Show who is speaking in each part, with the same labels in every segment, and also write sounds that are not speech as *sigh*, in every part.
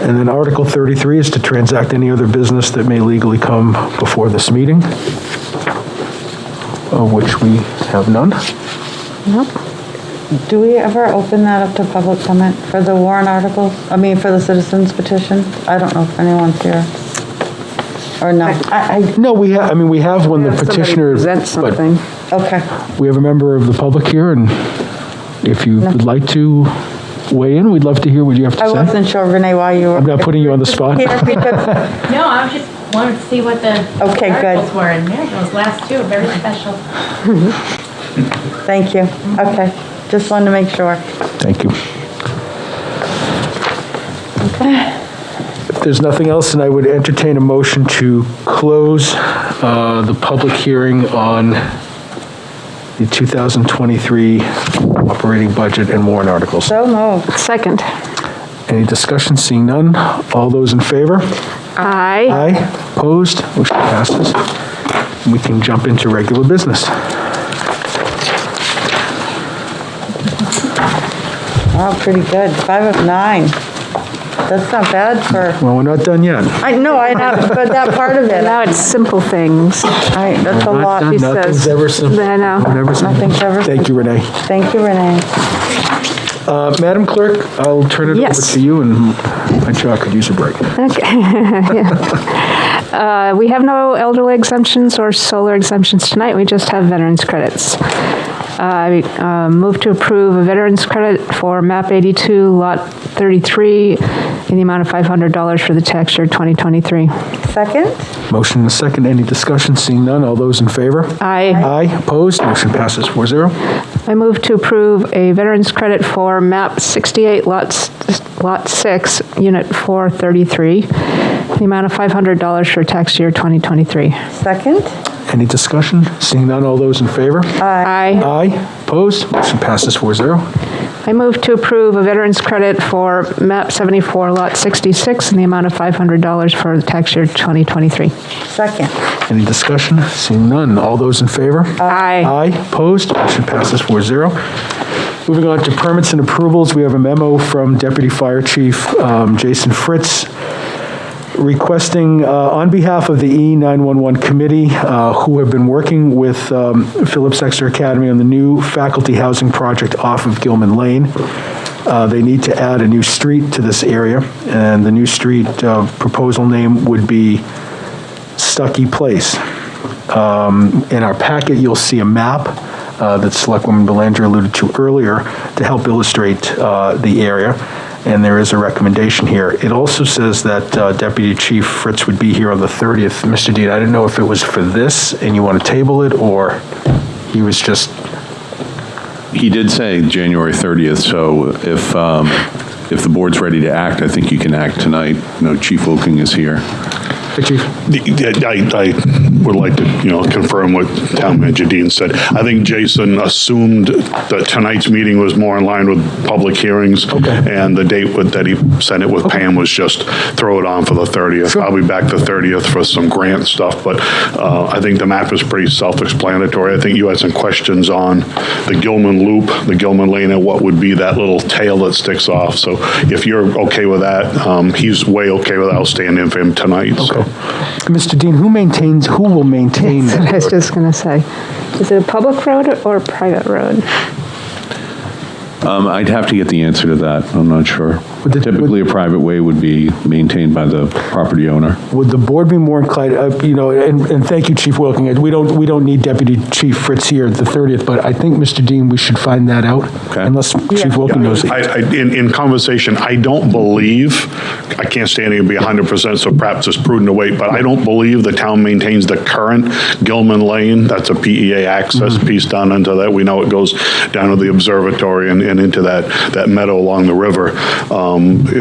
Speaker 1: And then Article 33 is to transact any other business that may legally come before this meeting, of which we have none.
Speaker 2: Do we ever open that up to public comment for the warrant articles? I mean, for the citizens petition? I don't know if anyone's here. Or not.
Speaker 1: I, I. No, we have, I mean, we have when the
Speaker 3: Have somebody
Speaker 1: petitioner.
Speaker 3: Present
Speaker 1: but
Speaker 3: something.
Speaker 2: Okay.
Speaker 1: We have a member of the public here, and if you would like to weigh in, we'd love to hear what you have
Speaker 2: I
Speaker 1: to say.
Speaker 2: wasn't sure, Renee, why you were.
Speaker 1: I'm not putting you on the spot.
Speaker 2: *laughs* Here,
Speaker 1: *laughs*
Speaker 2: because-
Speaker 4: No, I was just wanted to see what the
Speaker 2: Okay, good.
Speaker 4: articles were, and there those last two are very special.
Speaker 2: Thank you. Okay. Just wanted to make sure.
Speaker 1: Thank you. If there's nothing else, then I would entertain a motion to close uh, the public hearing on the 2023 operating budget and warrant articles.
Speaker 2: So moved.
Speaker 3: Second.
Speaker 1: Any discussion? Seeing none. All those in favor?
Speaker 3: Aye.
Speaker 1: Aye. Opposed? Motion passes. We can jump into regular business.
Speaker 2: Wow, pretty good. Five of nine. That's not bad for,
Speaker 1: Well, we're not done yet.
Speaker 2: I know, I know, but that part of it,
Speaker 3: Now it's simple things.
Speaker 2: I, that's a
Speaker 1: Not
Speaker 2: lot.
Speaker 1: done.
Speaker 3: She
Speaker 1: Nothing's
Speaker 3: says-
Speaker 1: ever simple.
Speaker 3: I know.
Speaker 1: Never simple.
Speaker 2: Nothing's ever
Speaker 1: Thank you, Renee.
Speaker 2: Thank you, Renee.
Speaker 1: Uh, Madam Clerk, I'll turn it over
Speaker 3: Yes.
Speaker 1: to you, and my child could use a break.
Speaker 3: Uh, We have no elderly exemptions or solar exemptions tonight, we just have veterans credits. I uh, move to approve a veterans credit for MAP 82, Lot 33, in the amount of $500 for the tax year 2023.
Speaker 2: Second?
Speaker 1: Motion and a second, any discussion? Seeing none, all those in favor?
Speaker 3: Aye.
Speaker 1: Aye, opposed, motion passes 4-0.
Speaker 3: I move to approve a veterans credit for MAP 68, lots- Lot 6, Unit 433, in the amount of $500 for tax year 2023.
Speaker 2: Second?
Speaker 1: Any discussion? Seeing none, all those in favor?
Speaker 3: Aye.
Speaker 1: Aye, opposed, motion passes 4-0.
Speaker 3: I move to approve a veteran's credit for MAP 74, Lot 66, in the amount of $500 for the tax year 2023.
Speaker 2: Second.
Speaker 1: Any discussion? Seeing none, all those in favor?
Speaker 3: Aye.
Speaker 1: Aye, opposed, motion passes 4-0. Moving on to permits and approvals, we have a memo from Deputy Fire Chief um, Jason Fritz requesting, uh, on behalf of the E E911 Committee, uh, who have been working with um, Phillips Exeter Academy on the new faculty housing project off of Gilman Lane, uh, they need to add a new street to this area, and the new street uh, proposal name would be Stuckey Place. Um, In our packet, you'll see a map uh, that Selectwoman Belanger alluded to earlier to help illustrate uh, the area, and there is a recommendation here. It also says that uh, Deputy Chief Fritz would be here on the 30th. Mr. Dean, I didn't know if it was for this and you want to table it, or he was just,
Speaker 5: He did say January 30th, so if, um, if the board's ready to act, I think you can act tonight. No, Chief Wilking is here.
Speaker 1: Hey, Chief?
Speaker 6: I, I would like to, you know, confirm what Town Manager Dean said. I think Jason assumed that tonight's meeting was more in line with public hearings. And the date with- that he sent it with Pam was just throw it on for the 30th. I'll be back the 30th for some grant stuff, but uh, I think the map is pretty self-explanatory. I think you had some questions on the Gilman Loop, the Gilman Lane, and what would be that little tail that sticks off. So if you're okay with that, um, he's way okay with that. I'll stand in for him tonight, so.
Speaker 1: Mr. Dean, who maintains, who will maintain
Speaker 3: That's what *laughs* I
Speaker 1: that?
Speaker 3: was just going to say. Is it a public road or a private road?
Speaker 5: Um, I'd have to get the answer to that. I'm not sure.
Speaker 1: Would the-
Speaker 5: Typically, a private way would be maintained by the property owner.
Speaker 1: Would the board be more inclined, uh, you know, and, and thank you, Chief Wilking, we don't, we don't need Deputy Chief Fritz here at the 30th, but I think, Mr. Dean, we should find that out,
Speaker 5: Okay.
Speaker 1: unless Chief Wilking knows.
Speaker 6: I, I, in, in conversation, I don't believe, I can't stand here and be hundred percent, so perhaps it's prudent to wait, but I don't believe the town maintains the current Gilman Lane. That's a PEA access
Speaker 1: Mm-hmm.
Speaker 6: piece down into that. We know it goes down to the observatory and, and into that, that meadow along the river. Um,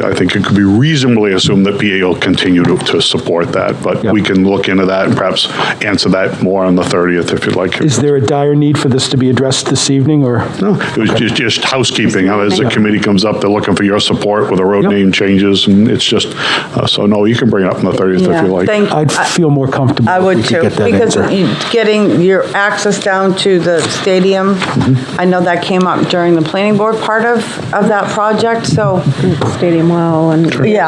Speaker 6: I think it could be reasonably assumed that PEA will continue to, to support that, but we can look into that and perhaps answer that more on the thirtieth if you'd like.
Speaker 1: Is there a dire need for this to be addressed this evevening, or?
Speaker 6: No, it was just, just housekeeping. Uh, As the committee comes up, they're looking for your support with the road
Speaker 1: Yep.
Speaker 6: name changes, and it's just, uh, so no, you can bring it up on the 30th if you like.
Speaker 2: Thank,
Speaker 1: I'd feel more comfortable
Speaker 2: I
Speaker 1: if we
Speaker 2: would
Speaker 1: could
Speaker 2: too,
Speaker 1: get that
Speaker 2: because
Speaker 1: answer.
Speaker 2: you- getting your access down to the stadium,
Speaker 1: Mm-hmm.
Speaker 2: I know that came up during the planning board part of, of that project, so,
Speaker 3: Stadium Well and...
Speaker 2: yeah,